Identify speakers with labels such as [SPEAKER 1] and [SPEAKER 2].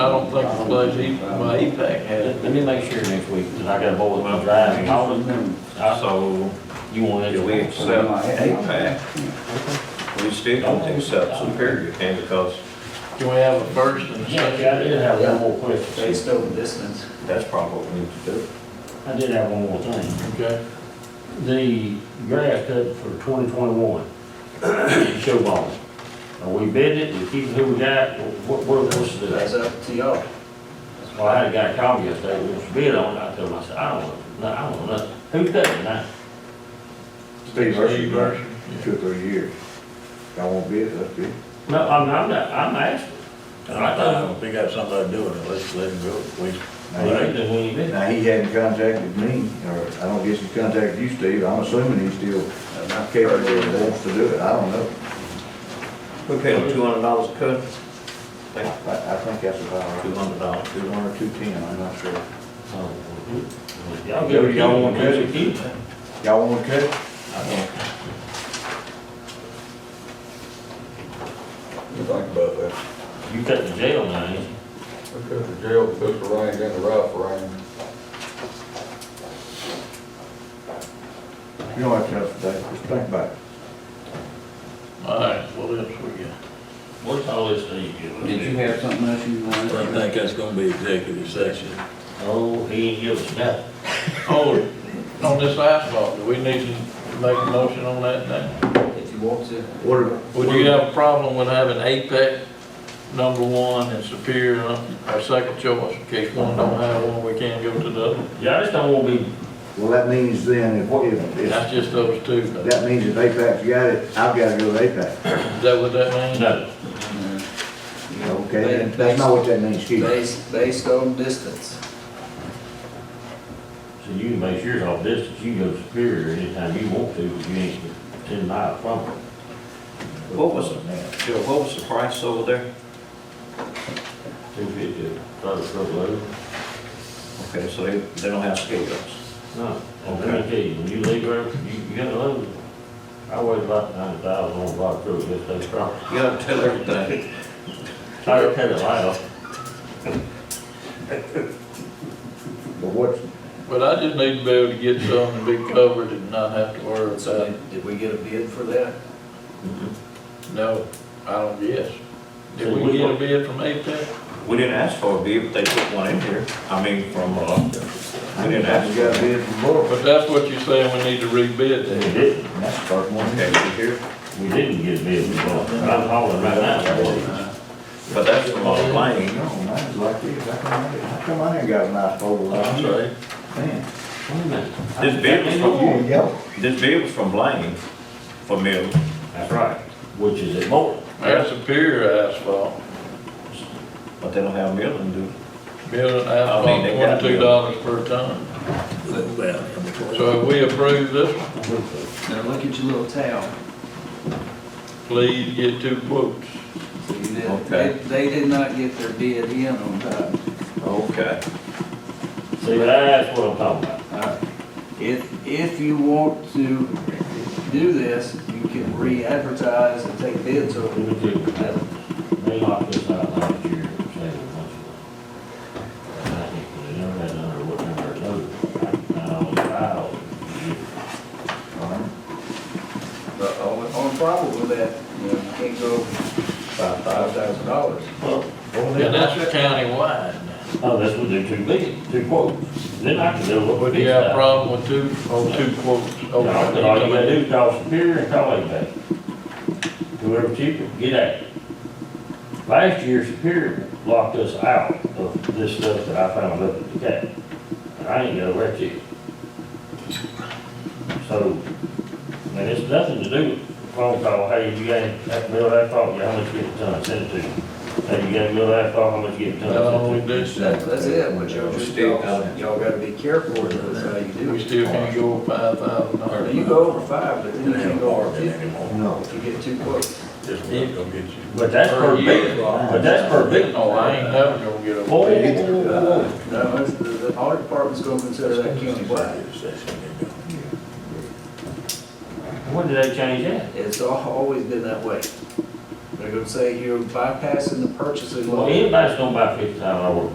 [SPEAKER 1] I don't think the place, E- well, EPAC had it.
[SPEAKER 2] Let let me make sure next week, because I got a board with my driving. I-
[SPEAKER 3] So,
[SPEAKER 2] You want it
[SPEAKER 3] do
[SPEAKER 2] to
[SPEAKER 3] we
[SPEAKER 2] be.
[SPEAKER 3] accept APAC? We still don't accept Superior County because
[SPEAKER 1] Can we have a first and a second?
[SPEAKER 2] Yeah, I did have one more question.
[SPEAKER 4] Based on distance.
[SPEAKER 3] that's probably what we need to do.
[SPEAKER 2] I did have one more thing.
[SPEAKER 1] Okay,
[SPEAKER 2] The grass cut for twenty twenty-one, show ball. Are we bid it, we keep who we got, what, what are we supposed to do?
[SPEAKER 4] That's up to y'all.
[SPEAKER 2] Well, I had a guy call me yesterday, he wants to bid on it, I told him, I said, I don't want, no, I don't want nothing. Who cut it now?
[SPEAKER 5] Steve
[SPEAKER 1] Steve
[SPEAKER 5] Hershey,
[SPEAKER 1] Hershey,
[SPEAKER 5] two, three years. Y'all won't bid it, that's good.
[SPEAKER 2] No, I'm, I'm not, I'm asking. I thought,
[SPEAKER 1] we got somebody doing it, let's let him go. We-
[SPEAKER 2] well, they didn't, we ain't bid it.
[SPEAKER 5] Now, he hadn't contacted me, or I don't guess he contacted you, Steve, I'm assuming he's still capable and wants to do it, I don't know.
[SPEAKER 3] We pay them two hundred dollars a cut?
[SPEAKER 5] I, I think that's about
[SPEAKER 3] Two
[SPEAKER 5] right.
[SPEAKER 3] hundred dollars.
[SPEAKER 5] Two one or two ten, I'm not sure.
[SPEAKER 2] Oh, Y'all give it, y'all want to keep it.
[SPEAKER 5] Y'all wanna cut it?
[SPEAKER 6] Think about that.
[SPEAKER 2] You cut the jail now, ain't you?
[SPEAKER 6] I cut the jail, put the rain in the rough rain.
[SPEAKER 5] You don't have to tell us today, just think about it.
[SPEAKER 1] All right, what else we got?
[SPEAKER 2] What's all this thing you give us?
[SPEAKER 4] Did you have something else you wanted?
[SPEAKER 7] I think that's gonna be executive session.
[SPEAKER 2] Oh, he ain't give us nothing.
[SPEAKER 1] Oh, on this asphalt, do we need to make a motion on that now?
[SPEAKER 4] If you want to.
[SPEAKER 5] What are,
[SPEAKER 1] Would you have a problem with having APEC number one and Superior uh, our second choice? In case one don't have one, we can't go to the other.
[SPEAKER 2] Y'all just don't wanna be,
[SPEAKER 5] well, that means then, if, if, if,
[SPEAKER 1] That's just those two. though. Is
[SPEAKER 5] that means if APAC's got it, I've gotta go to APAC.
[SPEAKER 1] that what that means?
[SPEAKER 2] no,
[SPEAKER 5] Okay, then, that's not what that means, excuse me.
[SPEAKER 4] Based, based on distance.
[SPEAKER 2] so you can make yours off distance, you can go to Superior anytime you want to, if you ain't ten miles from it.
[SPEAKER 3] What was it, Joe, what was the price over there?
[SPEAKER 2] Two fifty, try to truck load.
[SPEAKER 3] Okay, so they, they don't have scale ups.
[SPEAKER 2] No, I'm gonna tell you, when you leave there, you, you gotta load. I weighed about nine thousand on a block truck, just that strong.
[SPEAKER 3] You gotta tell everything.
[SPEAKER 2] I just had it loud.
[SPEAKER 5] But what's,
[SPEAKER 1] But I just need to be able to get some and be covered and not have to worry
[SPEAKER 4] So
[SPEAKER 1] about,
[SPEAKER 4] did we get a bid for that?
[SPEAKER 1] no, I don't guess. Did we get a E bid from APEC?
[SPEAKER 3] We didn't ask for a bid, but they put one in here. I mean, from, uh,
[SPEAKER 5] I
[SPEAKER 3] we didn't ask.
[SPEAKER 5] just gotta
[SPEAKER 3] for it.
[SPEAKER 5] bid from Laura,
[SPEAKER 1] But that's what you're saying, we need to rebid
[SPEAKER 2] We
[SPEAKER 1] that.
[SPEAKER 2] didn't,
[SPEAKER 5] and that's the first one.
[SPEAKER 3] Okay, we here,
[SPEAKER 2] we didn't get bid, I'm hauling right now.
[SPEAKER 3] but that's from uh, a
[SPEAKER 5] Oh, mine,
[SPEAKER 3] lane.
[SPEAKER 5] you know, mine's like this, how come I, how come I ain't got a nice pole
[SPEAKER 1] I'm
[SPEAKER 5] line?
[SPEAKER 1] sorry.
[SPEAKER 5] Man,
[SPEAKER 2] Wait a minute.
[SPEAKER 3] This bid was
[SPEAKER 5] you
[SPEAKER 3] from,
[SPEAKER 5] ain't yellow.
[SPEAKER 3] this bid was from Lane, for Mill.
[SPEAKER 2] That's right, which is at Morton.
[SPEAKER 1] That's Superior Asphalt,
[SPEAKER 3] But they don't have milling, do they?
[SPEAKER 1] building
[SPEAKER 3] I mean, they
[SPEAKER 1] asphalt,
[SPEAKER 3] got
[SPEAKER 1] twenty-two dollars per ton. So if we approve this, one,
[SPEAKER 4] Now look at your little town.
[SPEAKER 1] please get two quotes.
[SPEAKER 4] You did-
[SPEAKER 3] Okay.
[SPEAKER 4] They, they did not get their bid in on time.
[SPEAKER 3] Okay.
[SPEAKER 2] See, that's what I'm talking about.
[SPEAKER 4] All right. Uh, If, if you want to do this, you can re-advertise and take bids
[SPEAKER 2] Let
[SPEAKER 4] over.
[SPEAKER 2] me tell you, They locked us out last year, saying a bunch of And I think they never had another, what number it was. I was proud.
[SPEAKER 4] But on, on problem with that, you know, you can't go over five, five thousand dollars.
[SPEAKER 1] And that's countywide.
[SPEAKER 2] Oh, that's what they too big, two quotes. Then I can do what
[SPEAKER 1] Would
[SPEAKER 2] we
[SPEAKER 1] you
[SPEAKER 2] did.
[SPEAKER 1] have a problem with two, oh, two quotes?
[SPEAKER 2] All you gotta do
[SPEAKER 1] over?
[SPEAKER 2] is call Superior and call anybody. Whoever cheaper, get at it. Last year Superior locked us out of this stuff that I found up at the cap. And I ain't got a rat ticket. So, and it's nothing to do with phone call, hey, you got that mill of asphalt, yeah, how much get a ton, send it to me. Hey, you got a mill of asphalt, how much get a ton,
[SPEAKER 1] That's all
[SPEAKER 2] send
[SPEAKER 1] we
[SPEAKER 2] it to me.
[SPEAKER 1] do.
[SPEAKER 4] That, that's it, but y'all just, y'all, y'all gotta be careful with it, that's how you do
[SPEAKER 1] We
[SPEAKER 4] it.
[SPEAKER 1] still can't go over five thousand
[SPEAKER 4] Now,
[SPEAKER 1] dollars.
[SPEAKER 4] You go over five, but then you
[SPEAKER 7] They
[SPEAKER 4] can
[SPEAKER 7] don't
[SPEAKER 4] go
[SPEAKER 7] borrow
[SPEAKER 4] over
[SPEAKER 7] it
[SPEAKER 4] fifty,
[SPEAKER 7] anymore.
[SPEAKER 5] Oh, No,
[SPEAKER 4] if you get too close.
[SPEAKER 7] Just not gonna get you.
[SPEAKER 2] But that's per bid, but that's per bid.
[SPEAKER 1] Oh, I ain't never gonna get
[SPEAKER 2] Whoa, whoa,
[SPEAKER 1] over.
[SPEAKER 2] whoa, whoa, whoa.
[SPEAKER 4] No, it's, the, the audit department's gonna consider that countywide.
[SPEAKER 2] When did they change that?
[SPEAKER 4] It's al- always been that way. They're
[SPEAKER 8] They're gonna say you're bypassing the purchasing law.
[SPEAKER 4] Well, anybody's gonna buy fifty thousand dollar